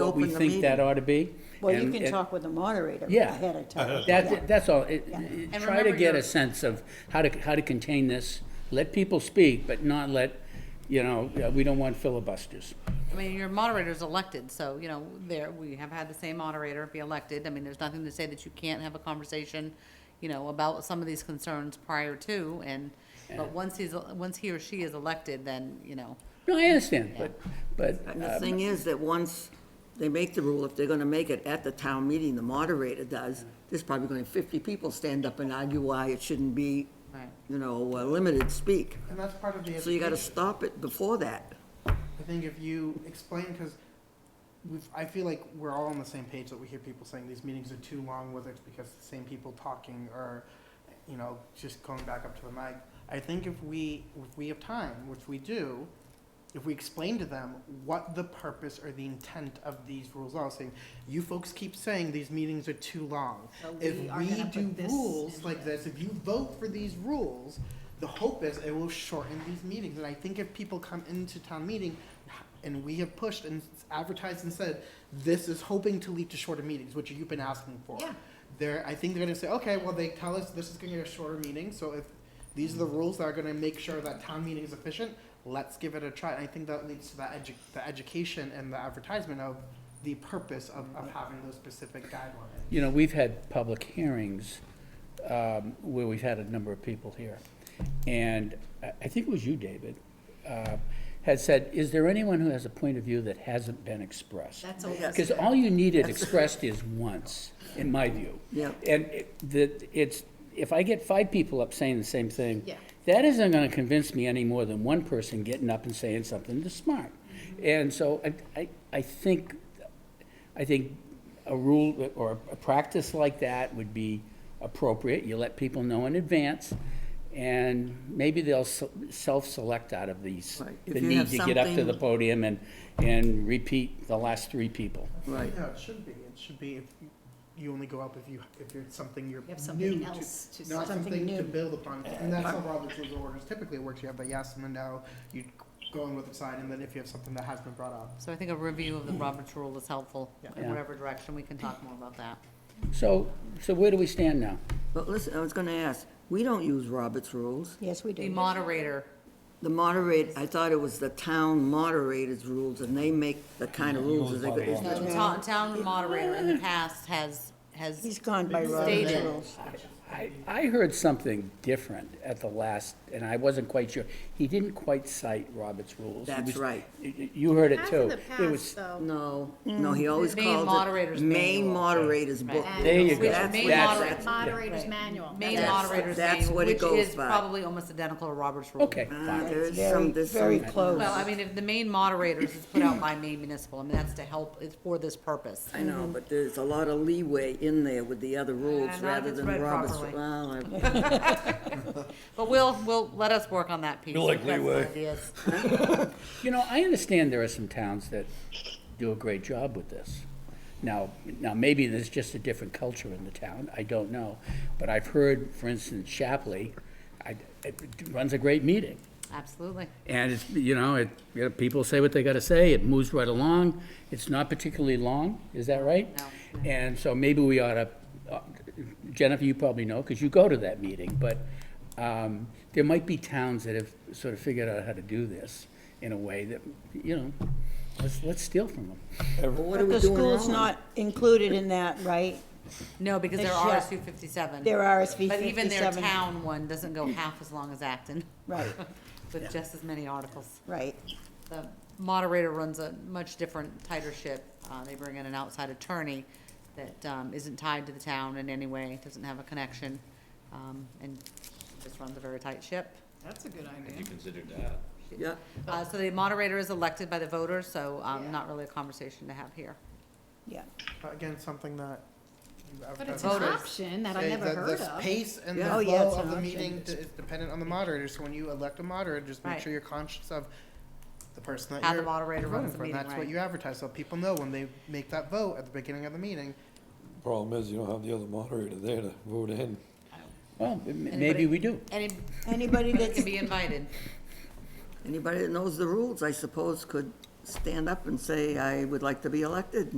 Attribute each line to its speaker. Speaker 1: what we
Speaker 2: open the
Speaker 1: think that
Speaker 2: meeting.
Speaker 1: ought to be.
Speaker 3: Well, you
Speaker 1: and-
Speaker 3: can
Speaker 1: and
Speaker 3: talk with the moderator
Speaker 1: Yeah.
Speaker 3: ahead of time.
Speaker 1: That, that's all. It- it-
Speaker 4: And
Speaker 1: Try to
Speaker 4: remember
Speaker 1: get
Speaker 4: your-
Speaker 1: a sense of how to, how to contain this. Let people speak, but not let, you know, uh, we don't want filibusters.
Speaker 4: I mean, your moderator's elected, so, you know, there, we have had the same moderator be elected. I mean, there's nothing to say that you can't have a conversation, you know, about some of these concerns prior to, and, but once he's, once he or she is elected, then, you know,
Speaker 1: No, I understand, but, but. uh,
Speaker 2: And the thing is that once they make the rule, if they're gonna make it at the town meeting, the moderator does, there's probably going to fifty people stand up and argue why it shouldn't be,
Speaker 4: Right.
Speaker 2: you know, uh, limited speak.
Speaker 5: And that's part of the
Speaker 2: So you gotta
Speaker 5: education.
Speaker 2: stop it before that.
Speaker 5: I think if you explain, because we've, I feel like we're all on the same page that we hear people saying these meetings are too long, whether it's because the same people talking or, you know, just going back up to the mic. I think if we, if we have time, which we do, if we explain to them what the purpose or the intent of these rules are, saying, you folks keep saying these meetings are too long.
Speaker 6: But
Speaker 5: If
Speaker 6: we are
Speaker 5: we
Speaker 6: gonna
Speaker 5: do
Speaker 6: put this
Speaker 5: rules
Speaker 6: in
Speaker 5: like
Speaker 6: there.
Speaker 5: this, if you vote for these rules, the hope is it will shorten these meetings. And I think if people come into town meeting and we have pushed and advertised and said, this is hoping to lead to shorter meetings, which you've been asking for.
Speaker 6: Yeah.
Speaker 5: They're, I think they're gonna say, okay, well, they tell us this is gonna get a shorter meeting, so if, these are the rules that are gonna make sure that town meeting is efficient, let's give it a try. And I think that leads to the edu- the education and the advertisement of the purpose of, of having those specific guidelines.
Speaker 1: you know, we've had public hearings um, where we've had a number of people here. And I I think it was you, David, uh, had said, is there anyone who has a point of view that hasn't been expressed?
Speaker 6: That's all.
Speaker 1: Because all you need it expressed is once, in my view.
Speaker 2: Yeah.
Speaker 1: And it- the, it's, if I get five people up saying the same thing.
Speaker 6: Yeah.
Speaker 1: That isn't gonna convince me any more than one person getting up and saying something that's smart. And so I, I, I think, I think a rule or a practice like that would be appropriate. You let people know in advance, and maybe they'll s- self-select out of these.
Speaker 2: Right. If
Speaker 1: The
Speaker 2: you
Speaker 1: need
Speaker 2: have
Speaker 1: to get up to the
Speaker 2: something-
Speaker 1: podium and, and repeat the last three people.
Speaker 2: Right.
Speaker 5: No, it should be, it should be, if you- you only go up if you, if you're something you're
Speaker 6: You have
Speaker 5: new
Speaker 6: something
Speaker 5: to-
Speaker 6: else to
Speaker 5: Not
Speaker 6: say.
Speaker 5: something to build upon, and that's how Robert's rules of orders typically works, you have the yes and the no, you go in with the side, and then if you have something that has been brought up.
Speaker 4: so I think a review of the Roberts rule is helpful
Speaker 1: Yeah.
Speaker 4: in whatever direction. We can talk more about that.
Speaker 1: So, so where do we stand now?
Speaker 2: But listen, I was gonna ask, we don't use Robert's rules.
Speaker 3: Yes, we
Speaker 4: The
Speaker 3: do.
Speaker 4: moderator,
Speaker 2: The moderator, I thought it was the town moderator's rules, and they make the kind of rules that they. go-
Speaker 4: no, the town, town moderator in the past has,
Speaker 3: He's
Speaker 4: has,
Speaker 3: gone by Robert's
Speaker 4: Stated.
Speaker 3: rules.
Speaker 1: I, I heard something different at the last, and I wasn't quite sure. He didn't quite cite Robert's rules. He
Speaker 2: That's
Speaker 1: was-
Speaker 2: right.
Speaker 1: y- y- You heard it
Speaker 7: Has
Speaker 1: too.
Speaker 7: in the
Speaker 1: It was
Speaker 7: past, though.
Speaker 2: No, no, he always
Speaker 4: Main
Speaker 2: calls it
Speaker 4: moderator's
Speaker 2: main
Speaker 4: manual.
Speaker 2: moderator's book.
Speaker 7: Right.
Speaker 1: There you
Speaker 2: That's-
Speaker 1: go.
Speaker 2: that's-
Speaker 4: Main
Speaker 1: That's-
Speaker 4: moderator.
Speaker 7: Moderator's manual.
Speaker 4: main
Speaker 7: That's-
Speaker 4: moderator's
Speaker 2: that's
Speaker 4: manual,
Speaker 2: what it
Speaker 4: which
Speaker 2: goes
Speaker 4: is
Speaker 2: by.
Speaker 4: probably almost identical to Robert's rule.
Speaker 1: Okay,
Speaker 2: Ah,
Speaker 1: fine.
Speaker 2: There's
Speaker 3: Very,
Speaker 2: some, there's
Speaker 3: very
Speaker 2: some.
Speaker 3: close.
Speaker 4: Well, I mean, if the main moderators is put out by Maine Municipal, I mean, that's to help, it's for this purpose.
Speaker 2: I know, but there's a lot of leeway in there with the other rules
Speaker 4: not if
Speaker 2: rather
Speaker 4: it's
Speaker 2: than
Speaker 4: read
Speaker 2: Robert's.
Speaker 4: properly.
Speaker 2: Well, I-
Speaker 4: But we'll, we'll, let us work on that piece.
Speaker 8: You like
Speaker 4: We've got some
Speaker 8: leeway.
Speaker 4: ideas.
Speaker 1: You know, I understand there are some towns that do a great job with this. Now, now maybe there's just a different culture in the town, I don't know. But I've heard, for instance, Shapley, I, it runs a great meeting.
Speaker 4: Absolutely.
Speaker 1: And it's, you know, it, you know, people say what they gotta say, it moves right along, it's not particularly long, is that right?
Speaker 4: No.
Speaker 1: And so maybe we ought to, Jennifer, you probably know, because you go to that meeting, but, um, there might be towns that have sort of figured out how to do this in a way that, you know, let's, let's steal from them.
Speaker 2: Well, what are
Speaker 3: But
Speaker 2: we
Speaker 3: the
Speaker 2: doing
Speaker 3: school's
Speaker 2: wrong?
Speaker 3: not included in that, right?
Speaker 4: No, because they're
Speaker 3: They shut-
Speaker 4: RSU fifty-seven.
Speaker 3: They're RSV
Speaker 4: But even their
Speaker 3: 57.
Speaker 4: town one doesn't go half as long as Acton,
Speaker 3: Right,
Speaker 4: with just as many articles.
Speaker 3: right.
Speaker 4: The moderator runs a much different tighter ship. Uh, they bring in an outside attorney that, um, isn't tied to the town in any way, doesn't have a connection, um, and just runs a very tight ship.
Speaker 6: That's a good idea.
Speaker 8: You considered that?
Speaker 2: Yeah,
Speaker 4: Uh, so the moderator is elected by the voters, so, um,
Speaker 6: Yeah.
Speaker 4: not really a conversation to have here.
Speaker 3: Yeah,
Speaker 5: But Again, something that. you
Speaker 7: But
Speaker 5: advertise.
Speaker 7: it's an
Speaker 4: Voters.
Speaker 7: option that I
Speaker 5: say
Speaker 7: never
Speaker 5: that
Speaker 7: heard
Speaker 5: The
Speaker 7: of.
Speaker 5: pace and the
Speaker 2: Yeah.
Speaker 3: Oh, yeah, it's
Speaker 5: flow
Speaker 3: an
Speaker 5: of the
Speaker 3: option.
Speaker 5: meeting d- is dependent on the moderator, so when you elect a moderator, just make
Speaker 4: Right.
Speaker 5: sure you're conscious of the person that
Speaker 4: How the
Speaker 5: you're
Speaker 4: moderator runs
Speaker 5: voting
Speaker 4: the
Speaker 5: for, and
Speaker 4: meeting,
Speaker 5: that's what
Speaker 4: right.
Speaker 5: you advertise, so people know when they make that vote at the beginning of the meeting.
Speaker 8: Problem is, you don't have the other moderator there to vote in.
Speaker 1: Well, m- maybe we do.
Speaker 4: Any,
Speaker 3: anybody
Speaker 4: can
Speaker 3: that's,
Speaker 4: be invited.
Speaker 2: anybody that knows the rules, I suppose, could stand up and say, I would like to be elected,